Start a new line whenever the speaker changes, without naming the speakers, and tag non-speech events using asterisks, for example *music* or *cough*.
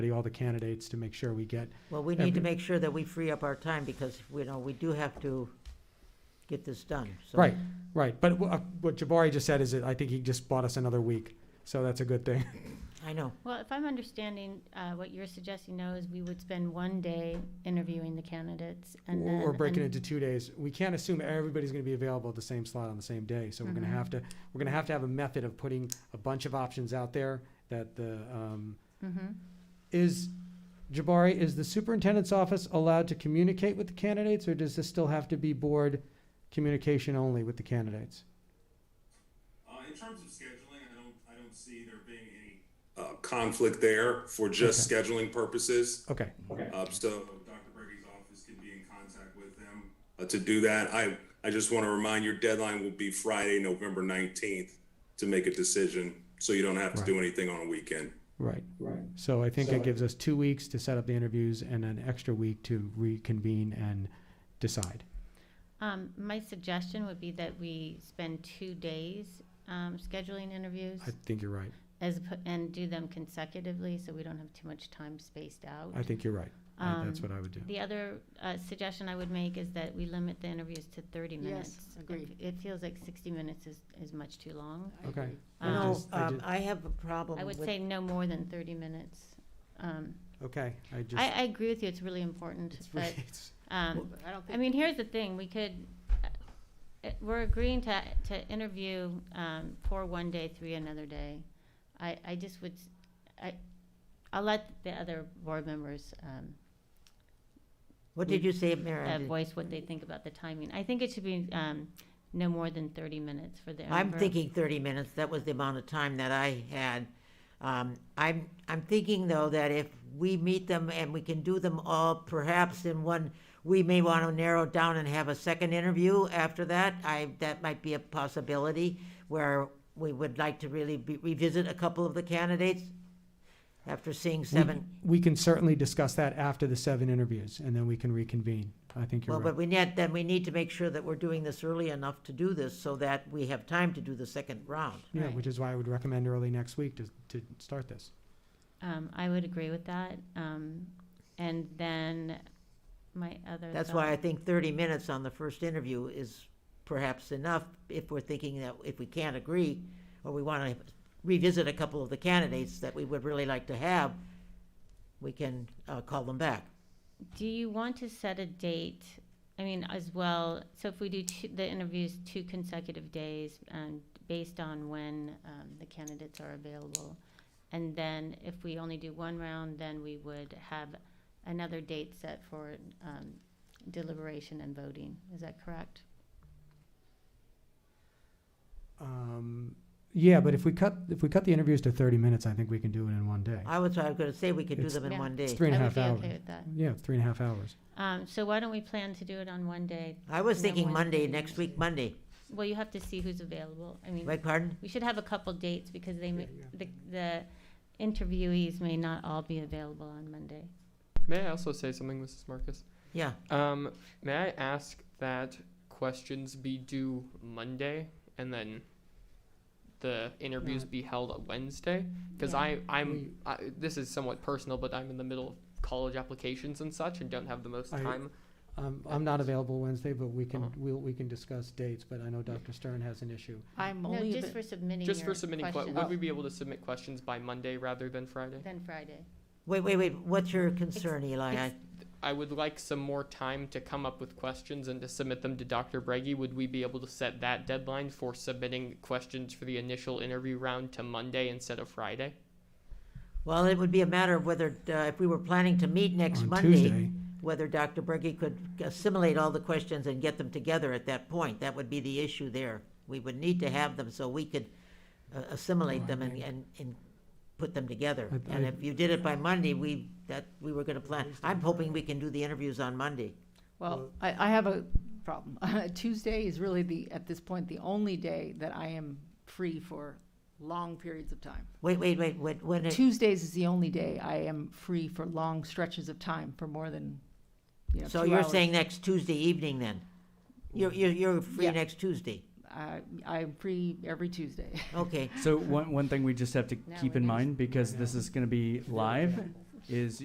study all the candidates to make sure we get,
Well, we need
Every-
to make sure that we free up our time because, you know, we do have to get this done, so.
right, right. But wha- uh, what Jabari just said is that I think he just bought us another week, so that's a good thing.
I know.
Well, if I'm understanding, uh, what you're suggesting now is we would spend one day interviewing the candidates
*laughs*
and then.
Or breaking
an-
into two days. We can't assume everybody's gonna be available at the same slot on the same day, so we're gonna
Mhm.
have to, we're gonna have to have a method of putting a bunch of options out there that the, um,
Mhm.
is, Jabari, is the superintendent's office allowed to communicate with the candidates, or does this still have to be board communication only with the candidates?
Uh, in terms of scheduling, I don't, I don't see there being any. Uh, conflict there for just scheduling purposes.
Okay,
Uh, so Dr. Brady's office can be in contact with them uh, to do that. I, I just want to remind your deadline will be Friday, November 19th to make a decision. So you don't have to do anything on a weekend.
right. Right. So I think it gives us two weeks to set up the interviews and an extra week to reconvene and decide.
Um, my suggestion would be that we spend two days, um, scheduling interviews
I think you're right.
as, oppo- and do them consecutively, so we don't have too much time spaced out.
I think you're right. I- That's
Um,
what I would do.
The other uh, suggestion I would make is that we limit the interviews to 30
Yes,
minutes.
agreed.
It feels like 60 minutes is, is much too long.
I
Okay.
agree.
I
Um,
No,
just- I
um,
did-
I have a problem
I
with.
would say no more than 30 minutes. Um,
Okay, I just.
I, I agree with you, it's really important,
it's
but,
really- *laughs* it's-
um,
I don't
I
think,
mean, here's the thing, we could, uh, uh, we're agreeing to, to interview, um, for one day, three another day. I, I just would, s- I, will let the other board members, um,
What did you say,
uh,
Mary? I didn't-
voice what they think about the timing. I think it should be, um, no more than thirty minutes for the.
I'm
for-
thinking thirty minutes, that was the amount of time that I had. Um, I'm, I'm thinking though that if we meet them and we can do them all perhaps in one, we may want to narrow it down and have a second interview after that. I, that might be a possibility where we would like to really be- revisit a couple of the candidates after seeing
we-
seven.
We can certainly discuss that after the seven interviews and then we can reconvene. I think you're
Well,
right.
but we need, then we need to make sure that we're doing this early enough to do this so that we have time to do the second round.
Yeah,
Right.
which is why I would recommend early next week to, to start this.
Um, I would agree with that, um, and then my other.
That's
thought-
why I think thirty minutes on the first interview is perhaps enough if we're thinking that if we can't agree, or we want to revisit a couple of the candidates that we would really like to have, we can uh, call them back.
Do you want to set a date? I mean, as well, so if we do two, the interviews two consecutive days, um, based on when, um, the candidates are available. And then if we only do one round, then we would have another date set for, um, deliberation and voting. Is that correct?
Um, yeah, but if we cut, if we cut the interviews to thirty minutes, I think we can do it in one day.
I was, I was gonna say we could do
It's-
them in
Yeah.
one
It's
day.
three and a half
I
hours.
would be okay with that.
Yeah, three and a half hours.
Um, so why don't we plan to do it on one day?
I was
and then
thinking
one
Monday,
thirty
next week, Monday.
Well, you have to see who's available. I mean,
Beg pardon?
we should have a couple dates because they, may-
yeah.
the, the interviewees may not all be available on Monday.
May I also say something, Mrs. Marcus?
Yeah,
Um, may I ask that questions be due Monday and then the interviews be held on Wednesday? Because
Yeah.
I, I'm, I, this is somewhat personal, but I'm in the middle of college applications and such and don't have the most
I-
time.
Um, I'm not available Wednesday, but we can,
Uh-huh.
we'll, we can discuss dates, but I know Dr. Stern has an issue.
I'm
No,
only,
just
avai-
for submitting
Just for
your
submitting, que-
question-
Oh.
would we be able to submit questions by Monday rather than Friday?
Then Friday.
wait, wait, wait, what's your concern, Eli? I-
I would like some more time to come up with questions and to submit them to Dr. Brege. Would we be able to set that deadline for submitting questions for the initial interview round to Monday instead of Friday?
Well, it would be a matter of whether, uh, if we were planning to meet next
On
Monday,
Tuesday.
whether Dr. Berge could assimilate all the questions and get them together at that point. That would be the issue there. We would need to have them so we could uh,
Oh,
assimilate them and, and, and put them together.
I-
And
I-
if you did it by Monday, we, that, we were gonna plan, I'm hoping we can do the interviews on Monday.
well, I, I have a problem. *laughs* Tuesday is really the, at this point, the only day that I am free for long periods of time.
Wait, wait, wait, when, when, it-
Tuesdays is the only day I am free for long stretches of time for more than, you know,
so
two
you're
hours.
saying next Tuesday evening then? You're, you're, you're free
Yeah.
next Tuesday?
I, Uh, I'm free every Tuesday.
Okay.
So one, one thing we just have to
No,
keep
we
in
just-
mind, because this is gonna be live, is